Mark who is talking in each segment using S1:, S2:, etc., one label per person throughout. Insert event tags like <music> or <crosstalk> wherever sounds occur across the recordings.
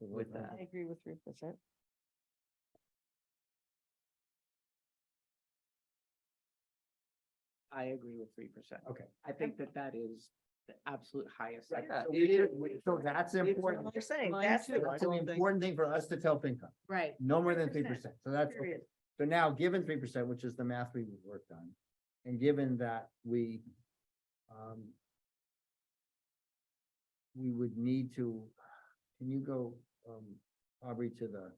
S1: with that.
S2: I agree with three percent.
S3: I agree with three percent.
S1: Okay.
S3: I think that that is the absolute highest. I-
S1: Yeah,
S3: so
S1: it
S3: we
S1: is-
S3: should-
S1: we- so that's important.
S2: You're saying
S3: Mine
S2: that's.
S3: too.
S2: the-
S1: It's an important thing for us to tell FinCom,
S3: Right,
S1: no more than three
S2: 3%,
S1: percent. So that's, okay.
S2: period.
S1: so now, given three percent, which is the math we worked on, and given that we um we would need to, can you go, um, Aubrey, to the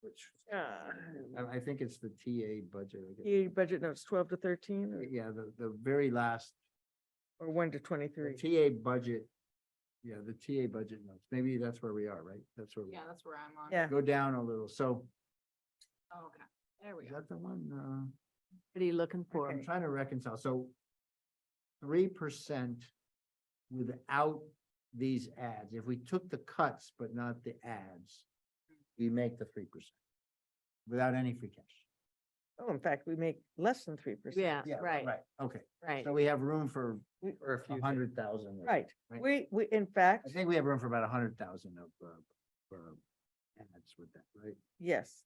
S1: which,
S2: Uh,
S1: I, I think it's the TA budget. I guess.
S2: The budget notes twelve to thirteen or-
S1: Yeah, the, the very last
S2: or one to
S1: The
S2: twenty-three.
S1: TA budget, yeah, the TA budget notes, maybe that's where we are, right? That's where, we
S3: yeah,
S1: are.
S3: that's where I'm on.
S2: Yeah.
S1: go down a little, so
S3: Oh, Okay, there we
S1: is
S3: go.
S1: that the one, uh,
S2: What are you looking
S1: I'm trying to reconcile, so three percent without these ads, if we took the cuts but not the ads, we make the three percent without any free cash.
S2: Oh, in fact, we make less than three percent.
S4: Yeah, right,
S1: Right, okay,
S4: right.
S1: so we have room for,
S2: We-
S1: for a few hundred thousand.
S2: Right.
S1: Right.
S2: We, we, in fact,
S1: I think we have room for about a hundred thousand of, uh, for ads with that, right?
S2: yes,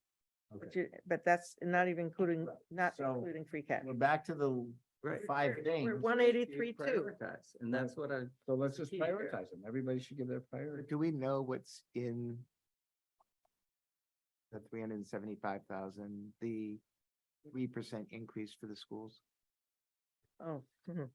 S1: Okay.
S2: but you, but that's not even including,
S1: Right.
S2: not
S1: So-
S2: including free cash.
S1: We're back to the five things.
S2: We're one eighty-three, two.
S5: prioritize, And that's what I,
S1: So let's just
S5: key here.
S1: prioritize them. Everybody should give their priority.
S5: do we know what's in the three hundred and seventy-five thousand, the three percent increase for the schools?
S2: Oh, mhm.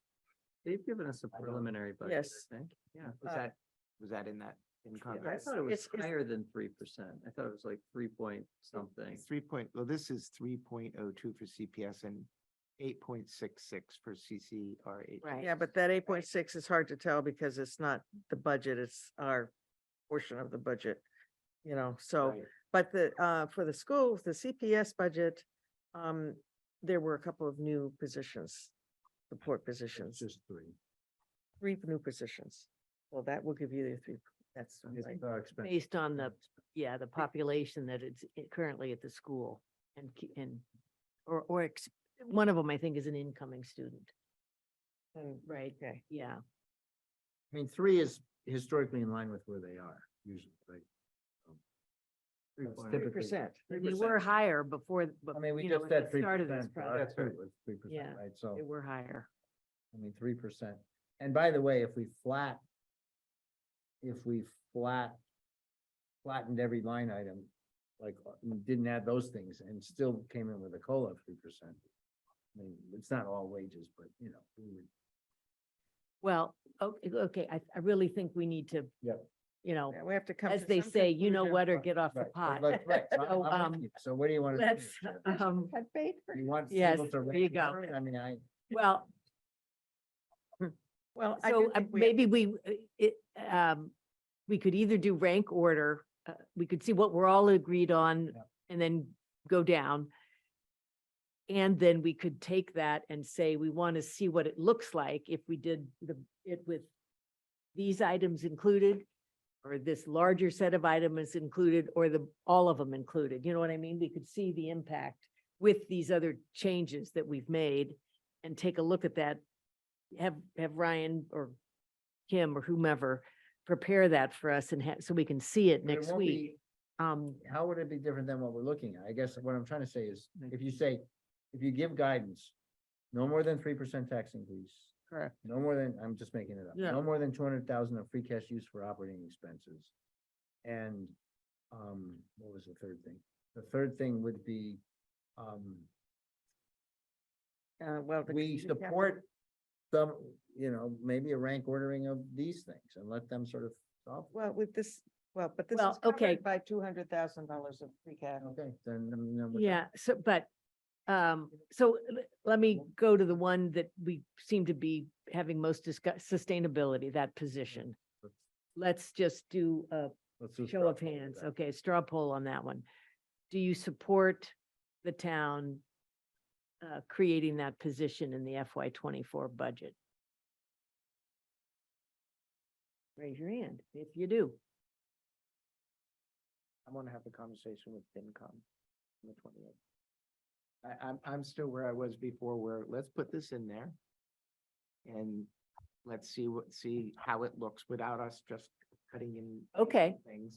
S5: They've given us a
S1: I don't-
S5: preliminary budget,
S2: Yes.
S5: I think, yeah.
S2: Uh,
S5: Was that, was that in that? in
S2: I
S5: Congress?
S2: Yes. thought it was It's- it's- higher
S5: than three percent. I thought it was like three point something. Three point, well, this is three point oh two for CPS and eight point six six for CCRH.
S4: Right.
S2: yeah, but that eight point six is hard to tell because it's not the budget, it's our portion of the budget. You know, so.
S5: Right.
S2: But the, uh, for the schools, the CPS budget, um, there were a couple of new positions, support
S1: It's
S2: positions,
S1: just three.
S2: three new positions. Well, that will give you the three, that's
S1: It's
S2: right.
S1: our expense.
S4: Based on the, yeah, the population that it's i- currently at the school and, ki- and, or, or ex- one of them, I think, is an incoming student,
S2: And-
S4: right?
S2: Oh, Okay,
S4: Yeah,
S1: I mean, three is historically in line with where they are usually, right? Um, That's
S2: three
S1: typically-
S2: percent.
S4: we were higher before, but,
S1: I mean, we
S4: you know,
S1: just
S4: at
S1: said
S4: the
S1: three
S4: start of this
S1: percent.
S4: project,
S1: Three
S4: Yeah.
S1: percent, right? So,
S4: we were higher.
S1: I mean, three percent. And by the way, if we flat, if we flat, flattened every line item, like, uh, didn't add those things and still came in with a COLA of three percent. I mean, it's not all wages, but you know, we would
S4: Well, okay, okay, I, I really think we need to.
S1: Yep.
S4: You know,
S2: Yeah, We have to come.
S4: as
S2: to
S4: they
S2: some
S4: say, you know
S2: conclusion.
S4: what, or get off the
S1: Right,
S4: pot.
S1: right, right. So I'm-
S4: <laughs> So,
S1: I'm with
S4: um,
S1: you. So what do you want?
S4: Let's, um,
S2: Cut bait for-
S1: You want.
S4: yes,
S1: people to
S4: there
S1: raise
S4: you go.
S1: their- I mean, I,
S4: well,
S2: Well, I do
S4: So uh,
S2: think we have-
S4: maybe we, uh, it, um, we could either do rank order, uh, we could see what we're all agreed on
S1: Yeah.
S4: and then go down. And then we could take that and say, we want to see what it looks like if we did the, it with these items included, or this larger set of items included, or the, all of them included, you know what I mean? We could see the impact with these other changes that we've made and take a look at that have, have Ryan or Kim or whomever prepare that for us and have, so we can see it
S1: but it
S4: next
S1: won't
S4: week.
S1: be-
S4: Um,
S1: How would it be different than what we're looking at? I guess what I'm trying to say is, if you say, if you give guidance, no more than three percent tax increase.
S2: Correct.
S1: No more than, I'm just making it up,
S2: Yeah.
S1: no more than two hundred thousand of free cash used for operating expenses. And, um, what was the third thing? The third thing would be, um,
S2: uh, well. the-
S1: we
S2: the cap-
S1: support some, you know, maybe a rank ordering of these things and let them sort of solve. it.
S2: Well, with this, well, but this
S4: Well,
S2: is covered
S4: okay.
S2: by two hundred thousand dollars of free cash.
S1: Okay, then, then- then. we're-
S4: yeah, so, but, um, so l- let me go to the one that we seem to be having most discuss, sustainability, that position. Let's just do a
S1: let's do
S4: show
S1: straw
S4: of
S1: poll with
S4: hands.
S1: that.
S4: Okay, straw poll on that one. Do you support the town uh, creating that position in the FY twenty-four budget? Raise your hand if you do.
S5: I want to have the conversation with FinCom on the twenty-eighth. I, I'm, I'm still where I was before, where let's put this in there. And let's see what, see how it looks without us just cutting in.
S4: Okay.
S5: Things.